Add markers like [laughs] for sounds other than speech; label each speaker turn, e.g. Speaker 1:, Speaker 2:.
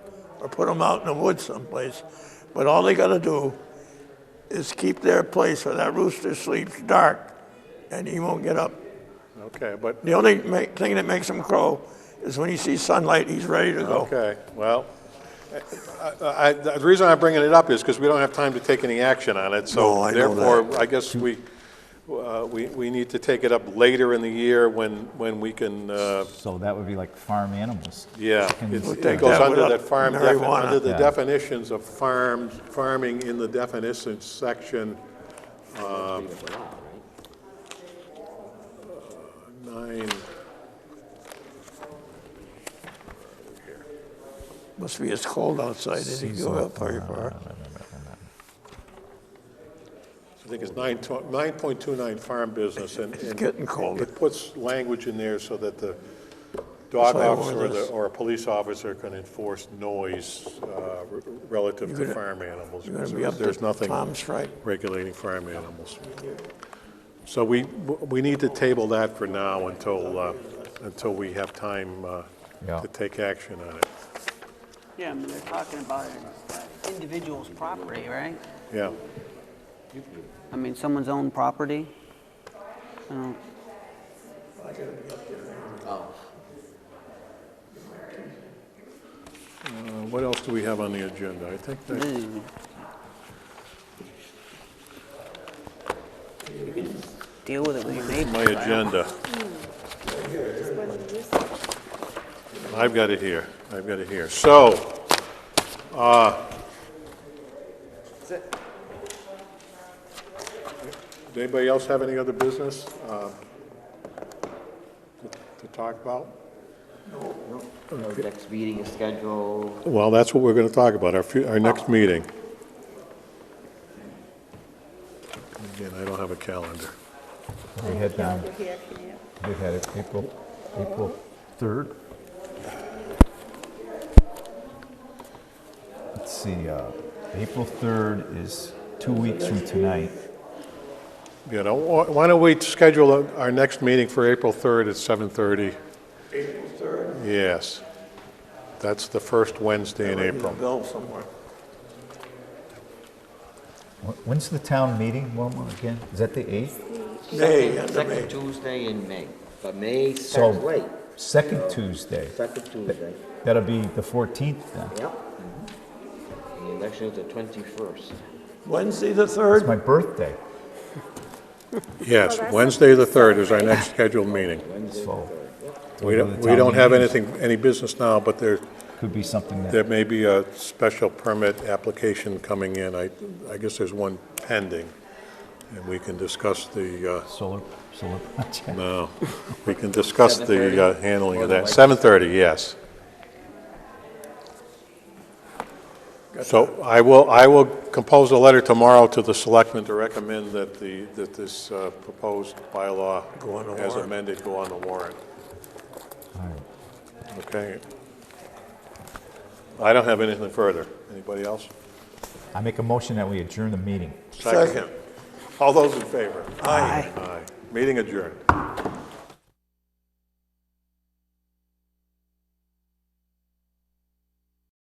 Speaker 1: or put them out in the woods someplace. But all they got to do is keep their place where that rooster sleeps dark, and he won't get up.
Speaker 2: Okay, but,
Speaker 1: The only ma- thing that makes him crow is when he sees sunlight, he's ready to go.
Speaker 2: okay, well, I- I- the reason I'm bringing it up is because we don't have time to take any action on it,
Speaker 1: No,
Speaker 2: so
Speaker 1: I know
Speaker 2: therefore, I guess we, uh, we we need to take it up later in the year when, when we can, uh,
Speaker 3: So that would be like farm animals.
Speaker 2: yeah.
Speaker 3: Chickens, uh,
Speaker 2: it's-
Speaker 3: We'll
Speaker 2: It
Speaker 1: take
Speaker 2: goes
Speaker 1: that
Speaker 2: under
Speaker 1: without
Speaker 2: that farm, defi-
Speaker 1: marijuana.
Speaker 2: under the
Speaker 3: Yeah.
Speaker 2: definitions of farms, farming in the definitions section. um, Nine,
Speaker 1: Must be as cold outside as you go up very far.
Speaker 2: I think it's nine tw- 9.29 farm business and.
Speaker 1: It's
Speaker 2: and
Speaker 1: getting colder.
Speaker 2: It puts language in there so that the dog
Speaker 1: why I wore
Speaker 2: officer or the-
Speaker 1: this.
Speaker 2: or a police officer can enforce noise uh, re- relative to
Speaker 1: gonna-
Speaker 2: farm animals.
Speaker 1: You're gonna be
Speaker 2: because
Speaker 1: up
Speaker 2: There's
Speaker 1: to
Speaker 2: nothing
Speaker 1: Tom's right.
Speaker 2: regulating farm animals. So we, we need to table that for now until, uh, until we have time uh,
Speaker 3: Yeah.
Speaker 2: to take action on it.
Speaker 4: Yeah, I mean, they're talking about an individual's property, right?
Speaker 2: Yeah,
Speaker 4: I mean, someone's own property. So,
Speaker 2: Uh, what else do we have on the agenda? I think that.
Speaker 4: ooh. You can just Deal with it with your neighbors.
Speaker 2: My
Speaker 4: I don't-
Speaker 2: agenda. I've got it here, I've got it here. So, uh... Does anybody else have any other business, uh, to to talk about?
Speaker 5: Our next meeting is scheduled
Speaker 2: Well, that's what we're gonna talk about, our, fu- our next meeting. Again, I don't have a calendar.
Speaker 3: We had, um,
Speaker 6: here, can you?
Speaker 3: we had it April, April 3rd. Let's see, uh, April 3rd is two weeks from tonight.
Speaker 2: You know, wh- why don't we schedule a- our next meeting for April 3rd at 7:30? April 3rd? Yes. That's the first Wednesday in April.
Speaker 1: Bill somewhere.
Speaker 3: Wh- When's the town meeting, Wilma, again? Is that the 8th?
Speaker 1: May, end
Speaker 5: second,
Speaker 1: of May.
Speaker 5: second Tuesday in May, but May
Speaker 3: So-
Speaker 5: starts late,
Speaker 3: Second Tuesday.
Speaker 5: second Tuesday,
Speaker 3: That'll be the 14th then.
Speaker 5: yep. And the election is the twenty-first.
Speaker 1: Wednesday the
Speaker 3: It's
Speaker 1: 3rd,
Speaker 3: my birthday,
Speaker 2: Yes, Wednesday, the 3rd is our next scheduled meeting.
Speaker 3: so.
Speaker 2: We
Speaker 3: go
Speaker 2: don't,
Speaker 3: to
Speaker 2: we
Speaker 3: town
Speaker 2: don't have
Speaker 3: meetings.
Speaker 2: anything, any business now, but there,
Speaker 3: Could be something that,
Speaker 2: there may be a special permit application coming in. I, I guess there's one pending, and we can discuss the, uh,
Speaker 3: solar, solar [laughs] project.
Speaker 2: no, we can discuss the uh,
Speaker 5: 7:30?
Speaker 2: handling
Speaker 5: More
Speaker 2: of
Speaker 5: than
Speaker 2: that.
Speaker 5: likely.
Speaker 2: 7:30, yes. So I will, I will compose a letter tomorrow to the selectmen to recommend that the, that this uh, proposed bylaw
Speaker 1: Go on the
Speaker 2: as
Speaker 1: warrant.
Speaker 2: amended go on the warrant,
Speaker 3: All right.
Speaker 2: okay? I don't have anything further. Anybody else?
Speaker 3: I make a motion that we adjourn the meeting.
Speaker 1: second.
Speaker 2: All those in favor?
Speaker 1: Aye.
Speaker 2: Aye. Meeting adjourned.